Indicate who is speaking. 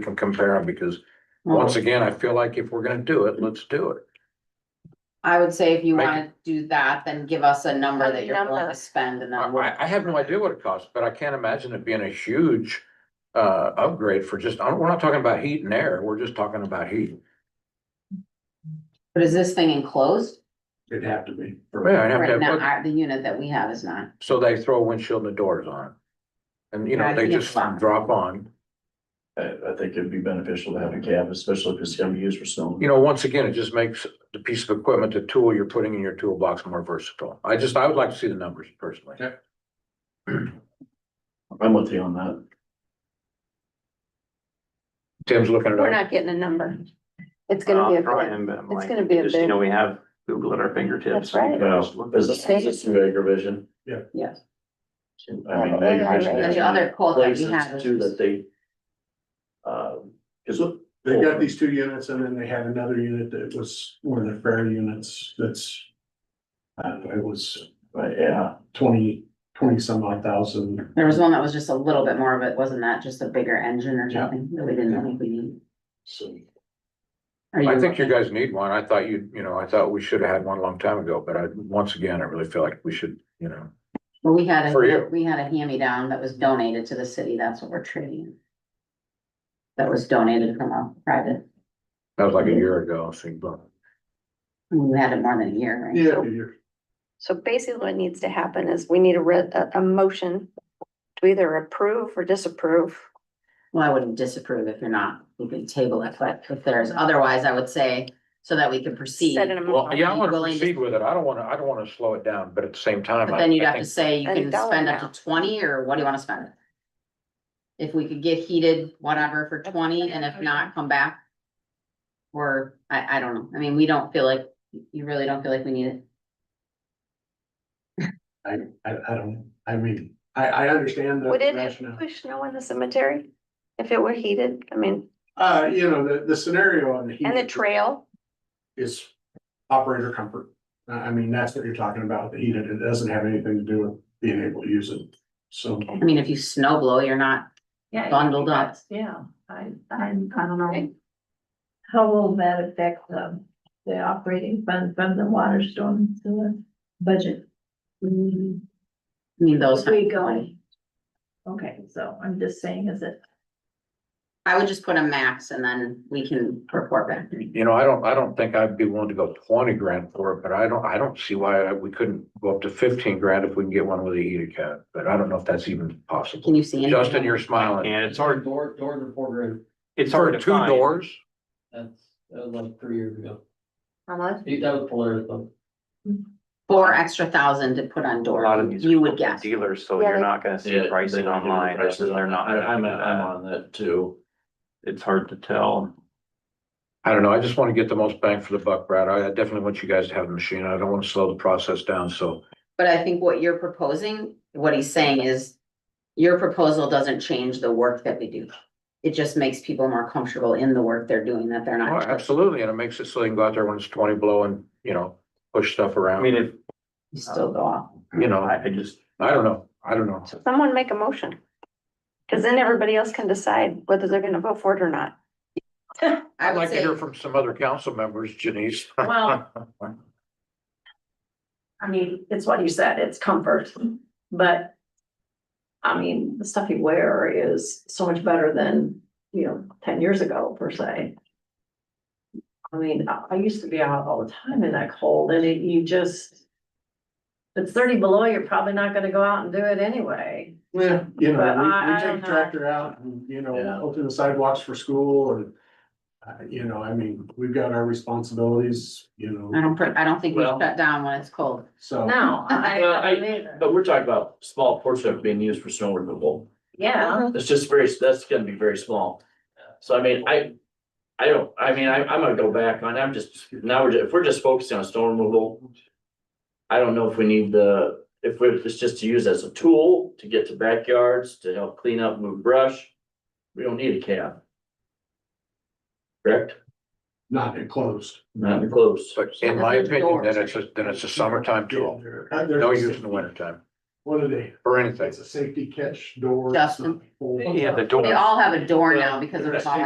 Speaker 1: can compare them, because
Speaker 2: Oh.
Speaker 1: once again, I feel like if we're gonna do it, let's do it.
Speaker 2: I would say if you
Speaker 1: Make
Speaker 2: wanna do that, then give us a number that you're willing
Speaker 3: Number.
Speaker 2: to spend and
Speaker 1: I,
Speaker 2: then we'll.
Speaker 1: I- I have no idea what it costs, but I can't imagine it being a huge uh, upgrade for just, I don't- we're not talking about heat and air, we're just talking about heat.
Speaker 2: But is this thing enclosed?
Speaker 4: It'd have to be.
Speaker 1: Yeah, I'd have to
Speaker 2: Right
Speaker 1: have-
Speaker 2: now, our- the unit that we have is not.
Speaker 1: So they throw windshield and the doors on. And you know,
Speaker 2: Yeah,
Speaker 1: they
Speaker 2: yeah.
Speaker 1: just drop on.
Speaker 4: I, I think it'd be beneficial to have a cab, especially if it's gonna be used for snow.
Speaker 1: You know, once again, it just makes the piece of equipment, the tool you're putting in your toolbox more versatile. I just, I would like to see the numbers personally.
Speaker 4: Yeah. I'm with you on that.
Speaker 1: Tim's looking it
Speaker 3: We're
Speaker 1: up.
Speaker 3: not getting a number. It's
Speaker 5: Uh,
Speaker 3: gonna be a bid. It's gonna be a
Speaker 5: Just, you
Speaker 3: bid.
Speaker 5: know, we have Google at our fingertips.
Speaker 3: That's right.
Speaker 4: Well, is this, is this through Agravision?
Speaker 2: Yes.
Speaker 4: I mean,
Speaker 2: The
Speaker 4: Agravision.
Speaker 2: other quote that we had
Speaker 4: Places too that
Speaker 2: is
Speaker 4: they. Uh, cause look.
Speaker 6: They got these two units and then they had another unit that was one of the fair units that's. Uh, it was uh,
Speaker 4: Right, yeah,
Speaker 6: twenty, twenty some odd thousand.
Speaker 2: there was one that was just a little bit more of it, wasn't that just a bigger engine or
Speaker 6: Yeah.
Speaker 2: something that we didn't think we needed?
Speaker 6: So
Speaker 2: Are
Speaker 1: I think you
Speaker 2: looking-
Speaker 1: guys need one. I thought you, you know, I thought we should have had one a long time ago, but I, once again, I really feel like we should, you know.
Speaker 2: Well, we had,
Speaker 1: For you.
Speaker 2: a we had a hand-me-down that was donated to the city, that's what we're trading. in. That was donated from a private,
Speaker 1: That was like
Speaker 2: Mm-hmm.
Speaker 1: a year ago, I think, but
Speaker 2: we had it more than a year, right?
Speaker 6: yeah, you're-
Speaker 3: So basically what needs to happen is we need a re a, a motion to either approve or disapprove.
Speaker 2: Well, I wouldn't disapprove if you're not, we can table it, but if there's, otherwise I would say, so that we can proceed.
Speaker 3: Set an amount.
Speaker 1: Well, yeah, I
Speaker 2: Are you
Speaker 1: wanna
Speaker 2: willing to-
Speaker 1: proceed with it. I don't wanna, I don't wanna slow it down, but at the same time.
Speaker 2: But
Speaker 1: I-
Speaker 2: then you'd
Speaker 1: I
Speaker 2: have to
Speaker 1: think-
Speaker 2: say you
Speaker 3: A
Speaker 2: can
Speaker 3: dollar
Speaker 2: spend up
Speaker 3: amount.
Speaker 2: to twenty, or what do you wanna spend? it? If we could get heated, whatever, for twenty, and if not, come back. Or, I, I don't know, I mean, we don't feel like, you really don't feel like we need it.
Speaker 6: I, I, I don't, I mean, I, I understand the
Speaker 3: Would it
Speaker 6: rationale.
Speaker 3: push snow in the cemetery if it were heated? I mean,
Speaker 6: Uh, you know, the, the scenario on the heat
Speaker 3: and the trail,
Speaker 6: is operator comfort. I, I mean, that's what you're talking about, the heat, it doesn't have anything to do with being able to use it, so.
Speaker 2: I mean, if you snow blow, you're not
Speaker 7: Yeah,
Speaker 2: bundled up.
Speaker 7: yeah, I, I, I don't know. How will that affect the, the operating fund from the water storm to the budget?
Speaker 2: I mean, those.
Speaker 7: If we go. Okay, so I'm just saying, is it,
Speaker 2: I would just put a max and then we can report back.
Speaker 1: You know, I don't, I don't think I'd be willing to go twenty grand for it, but I don't, I don't see why I- we couldn't go up to fifteen grand if we can get one with a heated cab, but I don't know if that's even
Speaker 2: Can
Speaker 1: possible.
Speaker 2: you see? anything?
Speaker 1: Justin, you're smiling.
Speaker 5: And it's hard,
Speaker 8: Door, door reporter,
Speaker 5: it's
Speaker 1: For
Speaker 5: hard to
Speaker 1: two
Speaker 5: find.
Speaker 1: doors,
Speaker 8: that's, that was like three years ago.
Speaker 3: how much?
Speaker 8: That was Polaris though.
Speaker 2: Four extra thousand to put on
Speaker 5: A lot
Speaker 2: door,
Speaker 5: of these.
Speaker 2: you
Speaker 5: are
Speaker 2: would guess.
Speaker 5: Dealers, so
Speaker 3: Yeah,
Speaker 5: you're
Speaker 3: they-
Speaker 5: not gonna see pricing online. That's- They're not.
Speaker 4: I, I'm,
Speaker 5: gonna do
Speaker 4: I'm
Speaker 5: that.
Speaker 4: on that too.
Speaker 5: It's hard to tell.
Speaker 1: I don't know, I just wanna get the most bang for the buck, Brad, I I definitely want you guys to have the machine, I don't wanna slow the process down, so.
Speaker 2: But I think what you're proposing, what he's saying is, your proposal doesn't change the work that we do. It just makes people more comfortable in the work they're doing, that they're
Speaker 1: Oh,
Speaker 2: not. just-
Speaker 1: Absolutely, and it makes it so they can go out there when it's twenty below and, you know, push stuff
Speaker 5: I
Speaker 1: around,
Speaker 5: mean, if,
Speaker 2: You still go off.
Speaker 1: you know,
Speaker 5: I, I just,
Speaker 1: I don't know, I don't know.
Speaker 3: Someone make a motion. Cause then everybody else can decide whether they're gonna vote for it or not.
Speaker 2: I
Speaker 1: I'd
Speaker 2: would
Speaker 1: like to
Speaker 2: say,
Speaker 1: hear from some other council members, Janice.
Speaker 7: well, I mean, it's what you said, it's comfort, but. I mean, the stuff you wear is so much better than, you know, ten years ago per se. I mean, I, I used to be out all the time in that cold and it, you just. If it's thirty below, you're probably not gonna go out and do it anyway.
Speaker 6: Yeah, you
Speaker 7: But
Speaker 6: know,
Speaker 7: I-
Speaker 6: we,
Speaker 7: I
Speaker 6: we
Speaker 7: don't
Speaker 6: take
Speaker 7: know.
Speaker 6: tractor out and, you know,
Speaker 4: Yeah.
Speaker 6: open the sidewalks for school and. Uh, you know, I mean, we've got our responsibilities, you
Speaker 2: I
Speaker 6: know,
Speaker 2: don't, pr- I don't think we
Speaker 4: Well-
Speaker 2: shut down when it's cold.
Speaker 6: so.
Speaker 7: No, I,
Speaker 4: Well, I-
Speaker 7: I mean,
Speaker 4: But we're talking about small portion of it being used for snow removal.
Speaker 7: yeah,
Speaker 4: It's just very, that's gonna be very small. So I mean, I, I don't, I mean, I, I'm gonna go back on, I'm just, now we're, if we're just focusing on storm removal. I don't know if we need the, if we, it's just to use as a tool to get to backyards, to help clean up, move brush. We don't need a cab. Correct?
Speaker 6: Not enclosed.
Speaker 4: Not close.
Speaker 1: But in my opinion, then it's a, then it's a summertime tool,
Speaker 6: Uh,
Speaker 1: no use in the wintertime
Speaker 6: What are they?
Speaker 1: or anything.
Speaker 6: It's a safety catch door. it's
Speaker 2: Justin.
Speaker 6: not full.
Speaker 1: Yeah, the door.
Speaker 2: They all have a door now because of the.